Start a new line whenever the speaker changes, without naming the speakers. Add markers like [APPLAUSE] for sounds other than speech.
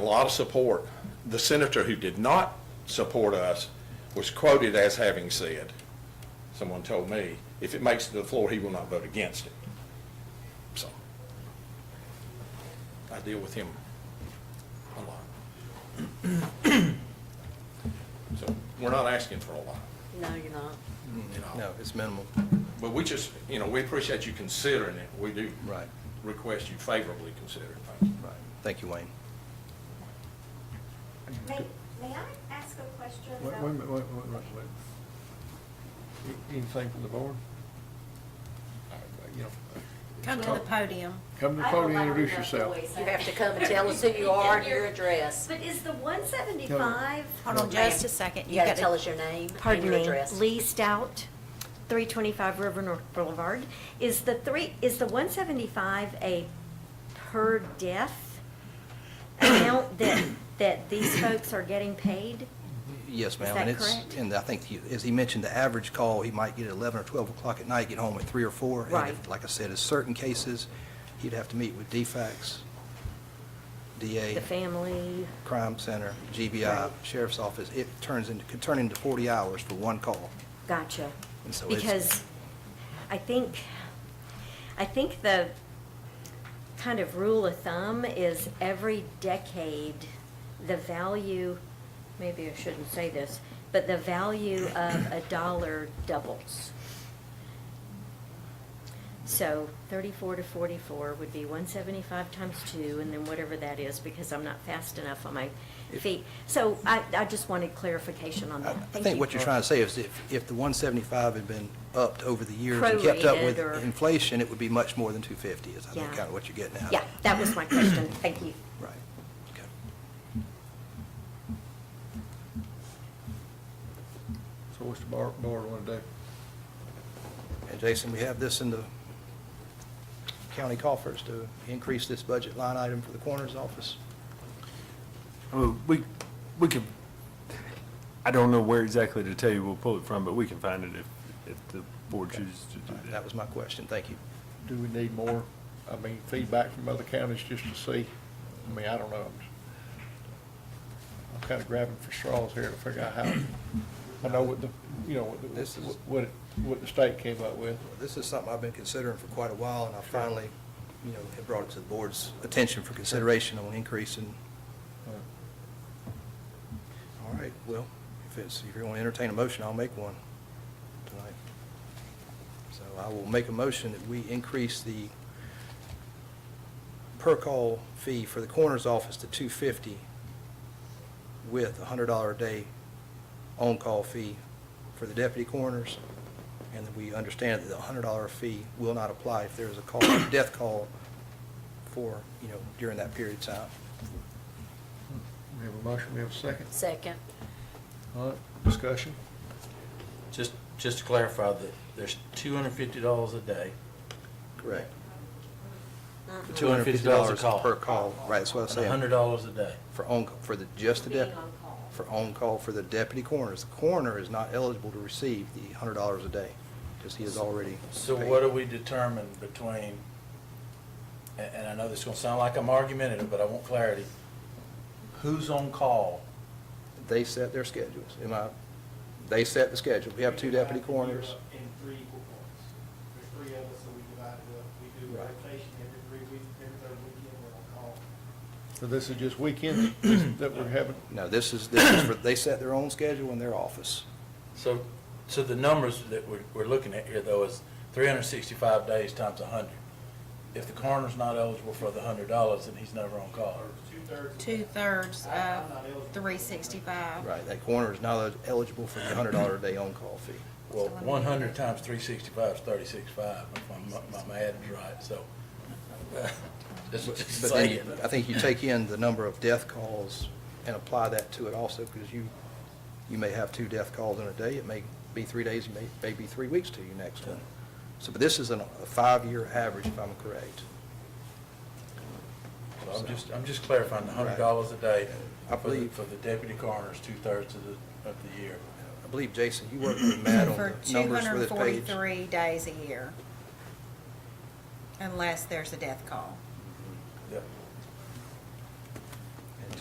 lot of support. The senator who did not support us was quoted as having said, someone told me, if it makes it to the floor, he will not vote against it. So I deal with him a lot. So we're not asking for a lot,
No, you're not.
you know.
No, it's minimal,
But we just, you know, we appreciate you considering it. We do
right,
request you favorably consider things.
right. Thank you, Wayne.
May, may I ask a question
Wait,
about?
wait, a minute, wait, wait, wait, wait. A- Anything from the board? You know,
Come to the podium.
Come to the
I don't
podium,
like
introduce
enough
yourself.
voice.
You have to come and tell us who [LAUGHS] you are and your address.
But is the one seventy-five?
Hold on just a second.
You gotta tell us your name and
Pardon
your
me,
address.
Lee Stout, 325 River North Boulevard. Is the three, is the 175 a per death amount that, that these folks are getting paid?
Yes, ma'am.
that
and it's-
correct?
And I think, he- as he mentioned, the average call, he might get at 11 or 12 o'clock at night, get home at 3 or 4. And if-
Right.
Like I said, in certain cases, he'd have to meet with DFACS,
The
DA,
family,
Crime Center, GBI,
Right.
Sheriff's Office. It turns into, could turn into 40 hours for one call.
gotcha.
And so it's-
Because I think, I think the kind of rule of thumb is every decade, the value, maybe I shouldn't say this, but the value of a dollar doubles. So thirty-four to forty-four would be one seventy-five times two, and then whatever that is, because I'm not fast enough on my feet. So I, I just wanted clarification on
I
that.
I
Thank
think
you.
what you're trying to say is if, if the 175 had been upped over the years and kept up with
Prorated or-
inflation, it would be much more than 250 is I think
Yeah.
kind of what you're getting at.
Yeah, that was my question. Thank you.
Right. Okay.
So what's the bar, board wanna do?
And Jason, we have this in the county coffers to increase this budget line item for the coroner's office.
I mean, we, we could, I don't know where exactly to tell you we'll pull it from, but we can find it if, if the board chooses to do that.
That was my question, thank you.
Do we need more, I mean, feedback from other counties just to see? I mean, I don't know. I'm just- I'm kinda grabbing for straws here to figure out how, I know what the, you know, what,
This
the-
is-
what, it- what the state came up with.
This is something I've been considering for quite a while, and I finally, you know, have brought it to the board's attention for consideration on increase in, all right, well, if it's, if you want to entertain a motion, I'll make one tonight. So I will make a motion that we increase the per-call fee for the coroner's office to two fifty with a hundred dollar a day on-call fee for the deputy coroners, and that we understand that the hundred dollar fee will not apply if there is a call,
[COUGHS]
death call for, you know, during that period of time.
We have a motion, we have a second.
Second.
All right, discussion?
Just, just to clarify, that there's two hundred and fifty dollars a day.
Correct.
Uh-huh.
The two hundred
$250
fifty dollars
a call.
per call, right, that's what I was
And
saying.
hundred dollars a day.
For on, for the, just the deputy,
on call.
for on-call for the deputy coroners. The coroner is not eligible to receive the hundred dollars a day, because he is already
So
paid.
what do we determine between, and, and I know this is gonna sound like I'm argumentative, but I want clarity. Who's on call?
They set their schedules, am I, they set the schedule. We have two deputy coroners.
In three equal parts. There's three of us, so we divide it up. We do
Right.
rotation every three weeks, every third weekend, we're on call.
So this is just weekends that we're having?
No, this is, this is for, they set their own schedule in their office.
So, so the numbers that we're, we're looking at here though is three hundred and sixty-five days times a hundred. If the coroner's not eligible for the hundred dollars, then he's never on call.
Or two-thirds. of that.
Two-thirds
I- I'm not
of
eligible.
three sixty-five.
Right, that coroner is not eligible for the hundred dollar a day on-call fee.
Well,
So let me-
one hundred times three sixty-five is thirty-six-five, if my, my math is right, so. uh, Just
But
just
but then,
saying.
you- I think you take in the number of death calls and apply that to it also, because you, you may have two death calls in a day. It may be three days, it may, may be three weeks to your next one. So, but this is an- a five-year average, if I'm correct.
So I'm just, I'm just clarifying, the hundred dollars a day
I
for the,
believe-
for the deputy coroners, two-thirds of the, of the year.
I believe, Jason, you worked with Matt on
For
the
two
numbers
hundred
for
and
this page.
forty-three days a year. Unless there's a death call.